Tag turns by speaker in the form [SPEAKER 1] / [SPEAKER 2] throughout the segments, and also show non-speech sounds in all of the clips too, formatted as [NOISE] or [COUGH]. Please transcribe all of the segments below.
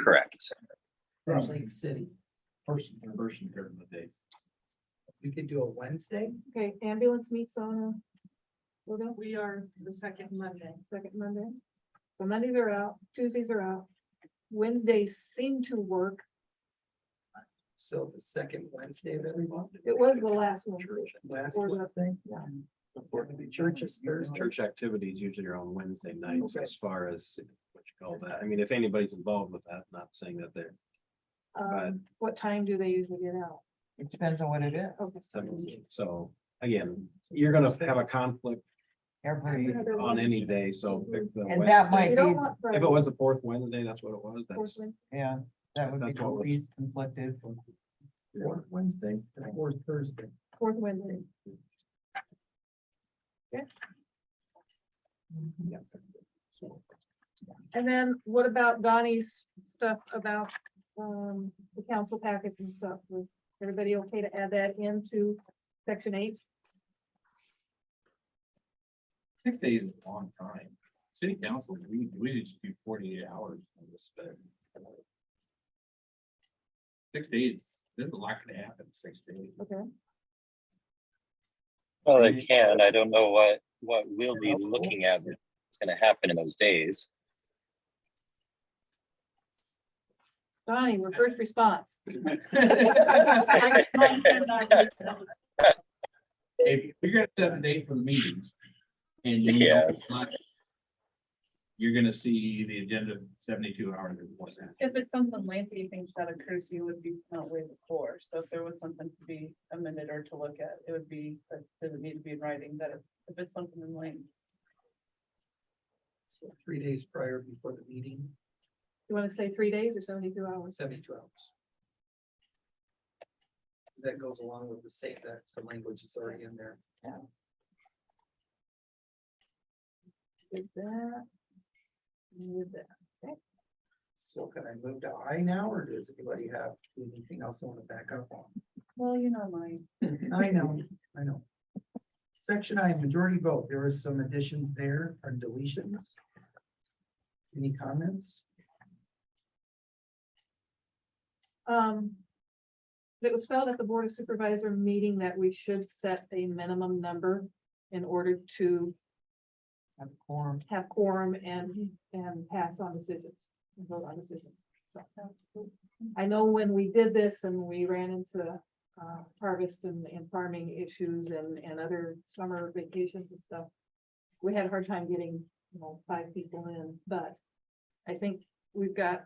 [SPEAKER 1] Correct.
[SPEAKER 2] From Lake City.
[SPEAKER 3] First and first and third of the day.
[SPEAKER 2] We could do a Wednesday.
[SPEAKER 4] Okay, ambulance meets on uh, a, well, no,
[SPEAKER 5] We are the second Monday.
[SPEAKER 4] second Monday. So Mondays are out, Tuesdays are out. Wednesdays seem to work.
[SPEAKER 2] So the second Wednesday of every month.
[SPEAKER 4] It was the last one.
[SPEAKER 2] Church, Last
[SPEAKER 4] Or the-
[SPEAKER 2] Wednesday.
[SPEAKER 4] yeah.
[SPEAKER 2] Churches Thursday.
[SPEAKER 3] Church activities usually are on Wednesday nights
[SPEAKER 2] Okay.
[SPEAKER 3] as far as what you call that. I mean, if anybody's involved with that, not saying that they're. Right.
[SPEAKER 4] Um, what time do they usually get out?
[SPEAKER 6] It depends on what it is.
[SPEAKER 4] Okay.
[SPEAKER 3] So again, you're gonna have a conflict
[SPEAKER 6] Every,
[SPEAKER 4] Another
[SPEAKER 3] on
[SPEAKER 4] one.
[SPEAKER 3] any day, so pick the.
[SPEAKER 6] And
[SPEAKER 3] Wednesday.
[SPEAKER 6] that might-
[SPEAKER 4] We don't want
[SPEAKER 3] If
[SPEAKER 4] Friday,
[SPEAKER 3] it was the fourth Wednesday, that's what it was,
[SPEAKER 4] fourth
[SPEAKER 3] that's
[SPEAKER 4] Wednesday.
[SPEAKER 6] yeah, that would be
[SPEAKER 3] That's what
[SPEAKER 6] totally conflicted.
[SPEAKER 2] Or Wednesday or Thursday.
[SPEAKER 4] Fourth Wednesday. And then what about Donnie's stuff about um the council packets and stuff? Was everybody okay to add that into section eight?
[SPEAKER 3] Six days is a long time. City council, we, we just do forty-eight hours on this. Six days, there's a lot gonna happen in six
[SPEAKER 6] [LAUGHS]
[SPEAKER 3] days.
[SPEAKER 4] Okay,
[SPEAKER 1] Well, they can. I don't know what, what we'll be looking at that's gonna happen in those days.
[SPEAKER 4] Donnie, your first response.
[SPEAKER 7] if you're gonna set a date for the meetings. And you. know
[SPEAKER 1] Yes.
[SPEAKER 7] it's not, You're gonna see the agenda seventy-two hours or more than
[SPEAKER 5] If it's something lengthy, you think that occurs, you would be not way before. So if there was something to be amended or to look at, it would be, that doesn't need to be in writing, that if if it's something in length.
[SPEAKER 2] So Three days prior before the meeting,
[SPEAKER 4] You want to say three days or seventy-two hours?
[SPEAKER 2] seventy-two hours. That goes along with the same, that the language is already in there.
[SPEAKER 4] Did that? Did that.
[SPEAKER 2] So can I move to I now, or does anybody have anything else I want to back up on?
[SPEAKER 5] Well, you know, my.
[SPEAKER 2] I know, I know. Section I, majority vote, there was some additions there or deletions. Any comments?
[SPEAKER 4] Um. It was felt at the Board of Supervisor meeting that we should set a minimum number in order to
[SPEAKER 6] Have quorum.
[SPEAKER 4] have quorum and, and pass on decisions, and vote on decisions. So, I know when we did this and we ran into, uh, harvest and, and farming issues and, and other summer vacations and stuff. We had a hard time getting, you know, five people in, but I think we've got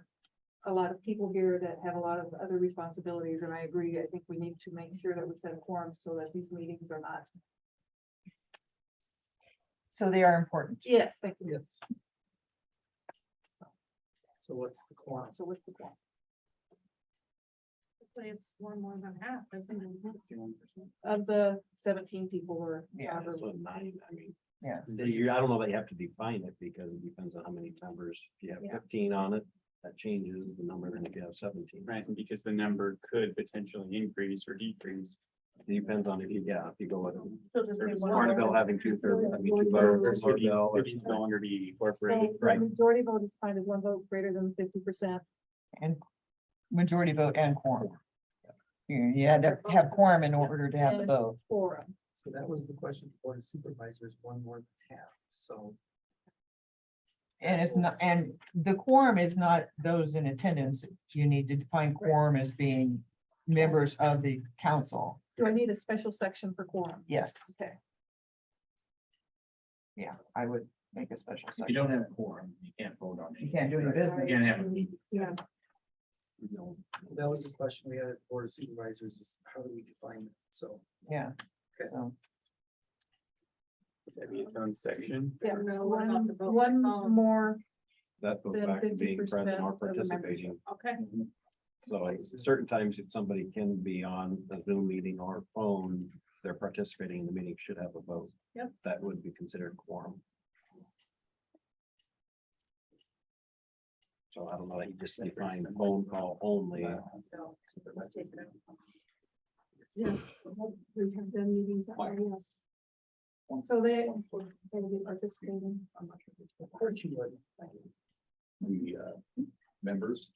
[SPEAKER 4] a lot of people here that have a lot of other responsibilities, and I agree, I think we need to make sure that we set a quorum so that these meetings are not.
[SPEAKER 6] So they are important.
[SPEAKER 4] Yes, thank you.
[SPEAKER 2] Yes. So what's the quantum?
[SPEAKER 4] So what's the quorum?
[SPEAKER 5] It's one more than half, isn't it?
[SPEAKER 4] Of the seventeen people were.
[SPEAKER 6] Yeah,
[SPEAKER 4] however
[SPEAKER 3] So nine, I mean.
[SPEAKER 6] Yeah.
[SPEAKER 3] So you, I don't know that you have to define it because it depends on how many members. If you
[SPEAKER 4] Yeah.
[SPEAKER 3] have fifteen on it, that changes the number than if you have seventeen.
[SPEAKER 7] Right, because the number could potentially increase or decrease.
[SPEAKER 3] Depends on if you, yeah, if you go with
[SPEAKER 5] So
[SPEAKER 7] There's
[SPEAKER 5] just be one more.
[SPEAKER 3] Martinville having two thirds. I mean, two
[SPEAKER 7] Or
[SPEAKER 3] votes,
[SPEAKER 7] cities
[SPEAKER 3] Martindale, or-
[SPEAKER 7] cities no longer be incorporated,
[SPEAKER 4] So the
[SPEAKER 3] right.
[SPEAKER 4] Majority vote is fine as one vote greater than fifty percent.
[SPEAKER 6] And majority vote and quorum. You, you had to have quorum in order to have the
[SPEAKER 4] And-
[SPEAKER 6] vote.
[SPEAKER 4] Quorum.
[SPEAKER 2] So that was the question for the supervisors, one more than half, so.
[SPEAKER 6] And it's not, and the quorum is not those in attendance. You need to define quorum as being members of the council.
[SPEAKER 4] Do I need a special section for quorum?
[SPEAKER 6] Yes,
[SPEAKER 4] Okay,
[SPEAKER 6] yeah, I would make a special
[SPEAKER 7] if you
[SPEAKER 6] section.
[SPEAKER 7] don't have a quorum, you can't vote on it.
[SPEAKER 6] You can't do any
[SPEAKER 7] You
[SPEAKER 6] business.
[SPEAKER 7] can't have a meeting.
[SPEAKER 4] yeah,
[SPEAKER 2] That was the question we had at Board of Supervisors, is how do we define it? So
[SPEAKER 6] Yeah.
[SPEAKER 2] Okay.
[SPEAKER 6] So,
[SPEAKER 7] That'd be its own section.
[SPEAKER 4] yeah,
[SPEAKER 5] No, what about
[SPEAKER 4] one,
[SPEAKER 5] the vote?
[SPEAKER 4] one
[SPEAKER 5] Oh.
[SPEAKER 4] more,
[SPEAKER 3] That goes
[SPEAKER 4] Then
[SPEAKER 3] back to being
[SPEAKER 4] 50%
[SPEAKER 3] present or
[SPEAKER 4] of the members.
[SPEAKER 3] participating.
[SPEAKER 5] Okay.
[SPEAKER 3] So at certain times, if somebody can be on a Zoom meeting or phone, they're participating in the meeting, should have a vote.
[SPEAKER 5] Yep.
[SPEAKER 3] That would be considered quorum. So I don't know, you just define phone call only.
[SPEAKER 5] Let's take it out.
[SPEAKER 4] yes, we have done meetings, that way, yes. So they, they will be participating.
[SPEAKER 2] I'm not sure. Of course you would.
[SPEAKER 7] The uh, members